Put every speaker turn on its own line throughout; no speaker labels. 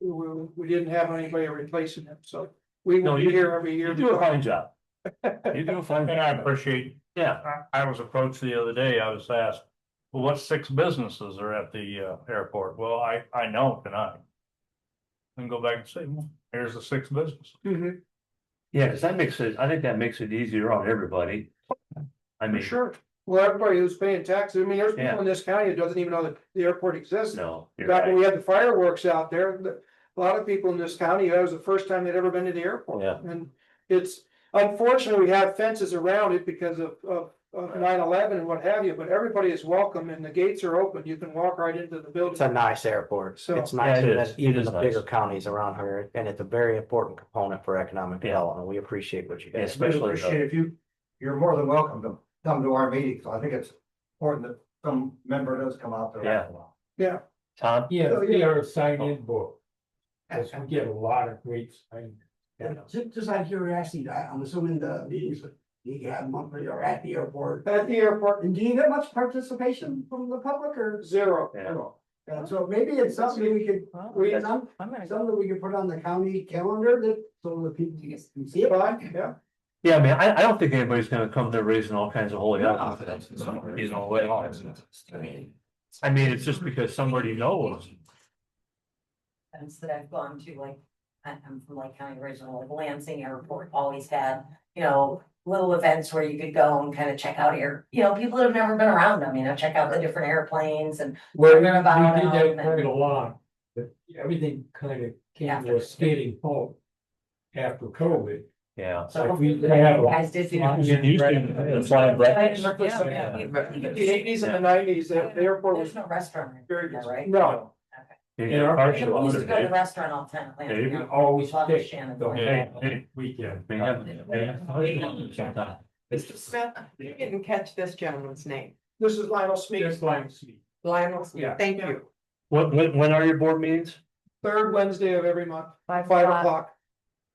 we, we, we didn't have anybody replacing him, so we
No,
will be
you-
here every year.
You do a fine job. You do a fine.
And I
job.
appreciate,
Yeah,
I, I was approached the other day, I was asked, well, what six businesses are at the, uh, airport? Well, I, I know tonight. And go back and say, well, here's the six businesses.
Mhm,
yeah, because that makes it, I think that makes it easier on everybody. I
for
mean,
sure. Well, everybody who's paying taxes, I mean, there's
Yeah.
people in this county that doesn't even know that the airport exists.
no. you're
Back when
right.
we had the fireworks out there, the- a lot of people in this county, that was the first time they'd ever been to the airport.
Yeah.
And it's unfortunately, we have fences around it because of, of, of nine eleven and what have you, but everybody is welcome and the gates are open. You can walk right into the
It's a
building.
nice airport.
So-
It's
Yeah,
nice,
it
even-
is. It
even
is
the
nice.
bigger counties around here, and it's a very important component for economic
Yeah.
development. We appreciate what you
Yeah,
guys. do.
Especially,
Appreciate
the-
if you, you're more than welcome to come to our meetings. I think it's important that some member does come out there.
Yeah.
Yeah.
Tom,
Yeah,
So,
they
yeah.
are a sign-in book. Cause we get a lot of great sign.
Just, just out of curiosity, I- I'm assuming the meetings, that you have monthly or at the airport.
At the airport,
And do you get much participation from the public or?
zero.
Yeah.
Uh, so maybe it's something we could,
We,
some- something we could put on the county calendar that, so the people can see it.
Fine, yeah.
yeah, I mean, I, I don't think anybody's gonna come there raising all kinds of holy. onions. You know, way off. I mean, it's just because somebody knows.
events that I've gone to, like, I- I'm from like County Original, like Lansing Airport always had, you know, little events where you could go and kind of check out air, you know, people that have never been around them, you know, check out the different airplanes and
Well, we
Learn
did
about it
that
and-
quite a lot, but everything kind of came to a skating halt after COVID.
Yeah.
so.
Like we-
hopefully
they have a-
you Guys did do.
Yeah.
You used to fly
I
breakfast.
didn't replace them,
Yeah.
yeah.
The eighties and the nineties, the the airport was
There's no restaurant,
very
there,
good.
right?
No,
You
In our-
get partial
People used to go to the
holiday.
restaurant all the time. at Lansing
Yeah, you
We
Airport.
always
Love the
pick
Shannon
the
Point.
whole weekend.
They have- they have holidays sometimes.
Mr. Smith, you didn't catch this gentleman's name.
this is Lionel Smith,
Just like. see.
Lionel,
Yeah.
Smith. thank you.
When, when, when are your board meetings?
third Wednesday of every month, five o'clock.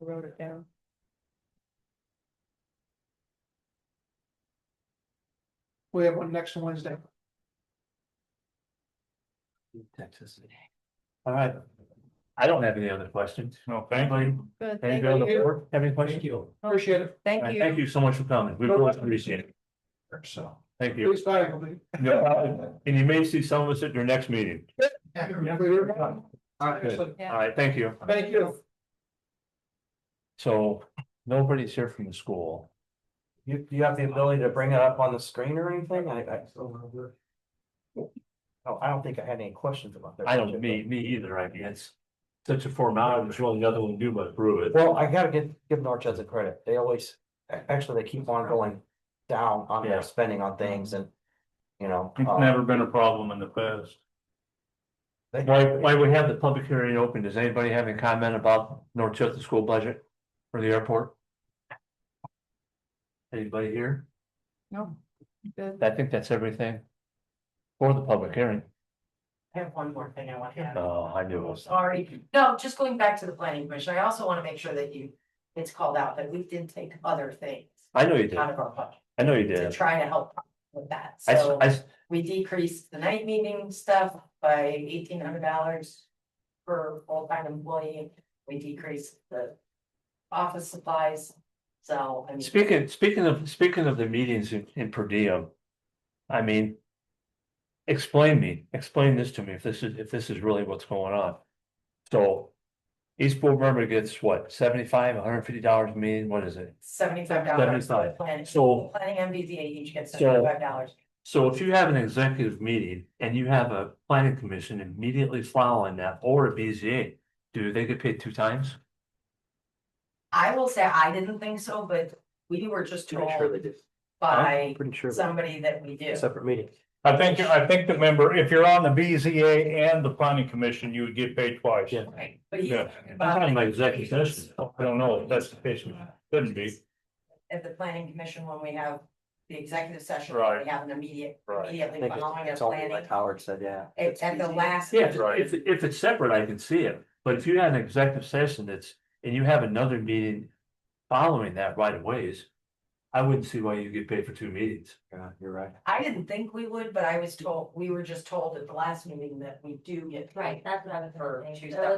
I Wrote it down.
We have one next Wednesday.
Texas.
All right. I don't have any other questions.
No, thank you.
Good, thank
Anybody on the
you.
board have any
Thank
questions?
you.
Appreciate it.
All
Thank
right,
you.
Thank you so much for coming. We really appreciate it. So, thank you.
Please, bye.
No problem. And you may see some of us at your next meeting.
All right,
Good.
excellent.
All right, thank you.
Thank you.
So nobody's here from the school.
You, you have the ability to bring it up on the screen or anything? I, I. Oh, I don't think I had any questions about that.
I don't, me, me either, I guess. Such a formality, there's really nothing we can do but approve it.
Well, I gotta give, give Norchester credit. They always, a- actually, they keep on going down on
Yeah.
their spending on things and, you know.
It's
uh,
never been a problem in the past.
they-
Why, why we have the public hearing open, does anybody have any comment about Northchester school budget for the airport? Anybody here?
No. Good.
I think that's everything. For the public hearing.
I have one more thing I want to add.
Oh, I knew it was.
Sorry, no, just going back to the planning commission, I also want to make sure that you, it's called out that we did take other things
I know you did.
out of our budget
I know you
to
did.
try to help with that,
I, s-
so
I s-
we decreased the night meeting stuff by eighteen hundred dollars per full-time employee, we decreased the office supplies, so, I mean.
Speaking, speaking of, speaking of the meetings in, in per diem, I mean. Explain me, explain this to me, if this is, if this is really what's going on. So. Each board member gets what, seventy-five, hundred and fifty dollars a meeting, what is it?
Seventy-five dollars.
$75.
Planning,
So-
planning MBTA each gets
So-
seventy-five dollars.
So if you have an executive meeting and you have a planning commission immediately following that or a BZA, do they get paid two times?
I will say, I didn't think so, but we were just
Pretty
told
sure they did.
by
Pretty sure. they-
somebody that we do.
Separate meeting.
I think, I think the member, if you're on the BZA and the planning commission, you would get paid twice.
Yeah.
Right, But he's
Yeah.
talking
I'm
about-
talking about executive session.
I don't know if that's the case, couldn't be.
At the planning commission, when we have the executive session,
Right.
we have an immediate,
Right.
I
immediately
think
following a
it's only
planning.
like Howard said, yeah.
At, at the last.
Yeah, if, if- if it's separate, I can see it, but if you had an executive session that's, and you have another meeting following that right away is, I wouldn't see why you get paid for two meetings.
Yeah, you're right.
I didn't think we would, but I was told, we were just told at the last meeting that we do get.
Right, that's what I was
For
gonna say.
two
Those-
separate